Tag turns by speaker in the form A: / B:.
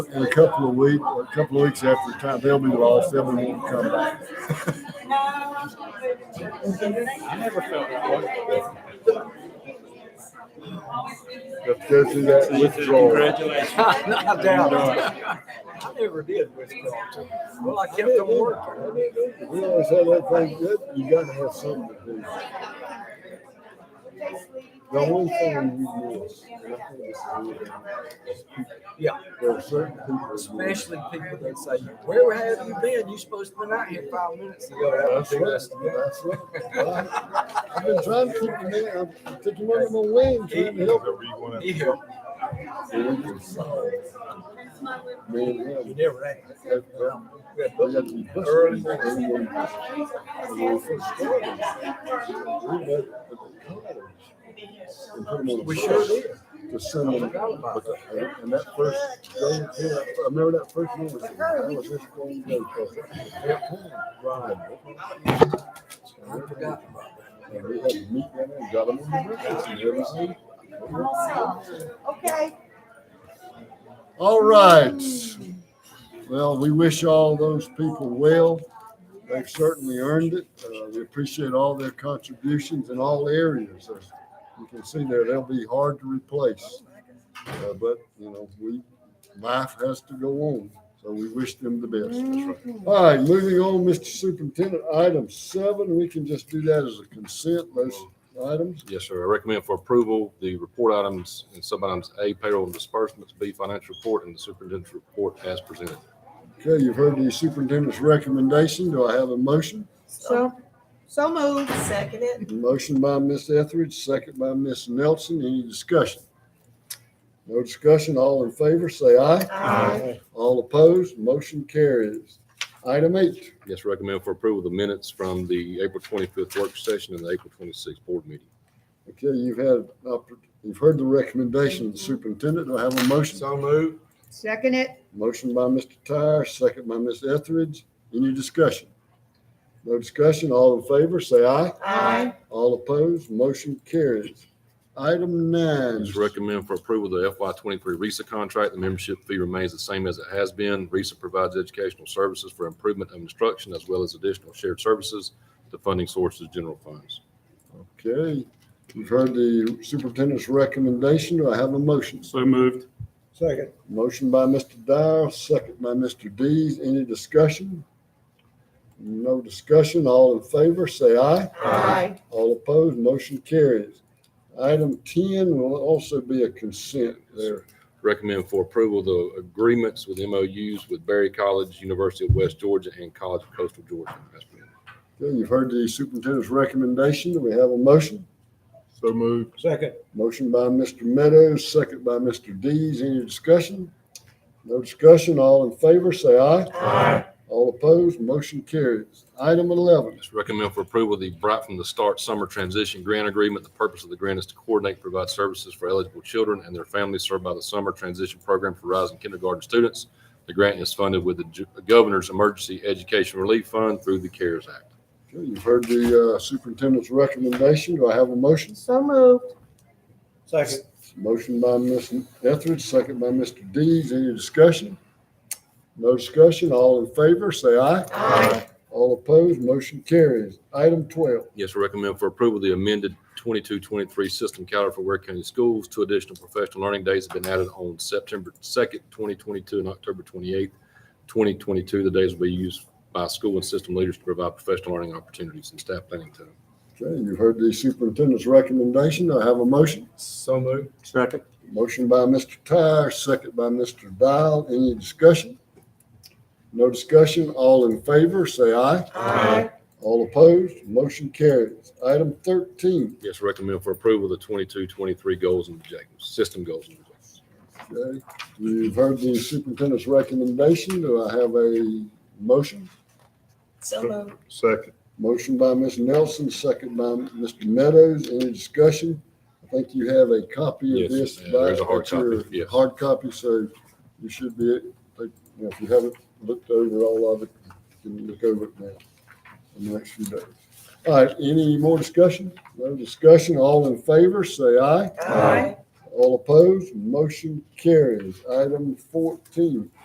A: in a couple of weeks, a couple of weeks after time, they'll be lost, then we won't come back.
B: I never felt that way.
A: Let's go through that withdrawal.
B: Congratulations.
C: I doubt it. I never did withdraw. Well, I kept on working.
A: We always have that thing good, you gotta have something to do. The one thing we miss, and I think this is really-
C: Yeah,
A: there are certain people.
C: especially people that say, where have you been? You supposed to been out here five minutes ago. That was
A: That's right,
C: just-
A: that's right. I- I've been trying to keep them in, I'm taking one of my wings, trying to help.
C: Yeah,
A: Me and him.
C: you never had.
A: have-
C: We
A: we
C: had both-
A: have to be pushed.
C: Early.
A: Everyone- when we first started, we met at the college and put them on the
C: We sure
A: bus
C: did.
A: To send them,
C: Forgot about that.
A: and and that first, day, yeah, I remember that first one was, I was just going to go. Right.
C: I forgot about that.
A: And we had to meet them and got them on the bus and everything.
D: Okay.
A: All right. Well, we wish all those people well. They've certainly earned it. Uh, we appreciate all their contributions in all areas. As you can see there, they'll be hard to replace. Uh, but, you know, we, life has to go on. So we wish them the best. All right, moving on, Mr. Superintendent, item seven, we can just do that as a consent, those items.
E: Yes, sir. I recommend for approval, the report items and sub-items A payroll and disbursements, B financial report, and the superintendent's report as presented.
A: Okay, you've heard the superintendent's recommendation. Do I have a motion?
D: So, so moved. Second it.
A: Motion by Ms. Etheridge, second by Ms. Nelson. Any discussion? No discussion. All in favor, say aye.
D: Aye.
A: All opposed, motion carries. Item eight,
E: Yes, recommend for approval, the minutes from the April twenty-fifth work session and the April twenty-sixth board meeting.
A: okay, you've had, oppor- you've heard the recommendation of the superintendent. Do I have a motion?
C: So moved.
D: Second it.
A: Motion by Mr. Tyre, second by Ms. Etheridge. Any discussion? No discussion. All in favor, say aye.
D: Aye.
A: All opposed, motion carries. Item nine.
E: Just recommend for approval, the FY twenty-three RISA contract. The membership fee remains the same as it has been. RISA provides educational services for improvement of instruction as well as additional shared services. The funding source is general funds.
A: Okay, you've heard the superintendent's recommendation. Do I have a motion?
F: So moved.
C: Second.
A: Motion by Mr. Dyer, second by Mr. Dees. Any discussion? No discussion. All in favor, say aye.
D: Aye.
A: All opposed, motion carries. Item ten will also be a consent there.
E: Recommend for approval the agreements with MOUs with Berry College, University of West Georgia, and College of Coastal Georgia. That's been-
A: Okay, you've heard the superintendent's recommendation. Do we have a motion?
F: So moved.
C: Second.
A: Motion by Mr. Meadows, second by Mr. Dees. Any discussion? No discussion. All in favor, say aye. Aye. All opposed, motion carries. Item eleven.
E: Just recommend for approval the Bright from the Start Summer Transition Grant Agreement. The purpose of the grant is to coordinate, and provide services for eligible children and their families served by the Summer Transition Program for Rising Kindergarten Students. The grant is funded with the Ju- Governor's Emergency Education Relief Fund through the CARES Act.
A: Okay, You've heard the uh, superintendent's recommendation. Do I have a motion?
D: So moved.
C: Second.
A: Motion by Ms. Etheridge, second by Mr. Dees. Any discussion? No discussion. All in favor, say aye. Aye. All opposed, motion carries. Item twelve.
E: Yes, we recommend for approval, the amended 22-23 system calendar for Ware County Schools. Two additional professional learning days have been added on September second, twenty twenty-two, and October twenty-eighth, twenty twenty-two. The days will be used by school and system leaders to provide professional learning opportunities and staff planning time.
A: Okay, you've heard the superintendent's recommendation. Do I have a motion?
C: So moved.
F: Second.
A: Motion by Mr. Tyre, second by Mr. Dial. Any discussion? No discussion. All in favor, say aye.
D: Aye.
A: All opposed, motion carries. Item thirteen.
E: Yes, we recommend for approval, the 22-23 goals and objectives, system goals and objectives.
A: Okay, you've heard the superintendent's recommendation. Do I have a motion?
D: So moved.
F: Second.
A: Motion by Ms. Nelson, second by Mr. Meadows. Any discussion? I think you have a copy of
E: Yes,
A: this.
E: yeah, there's a
A: back
E: hard
A: at your
E: copy, yes.
A: Hard copy, so you should be, you know, if you haven't looked over all of it, you can look over it now in the next few days. All right, any more discussion? No discussion. All in favor, say aye.
D: Aye.
A: All opposed? Motion carries. Item fourteen,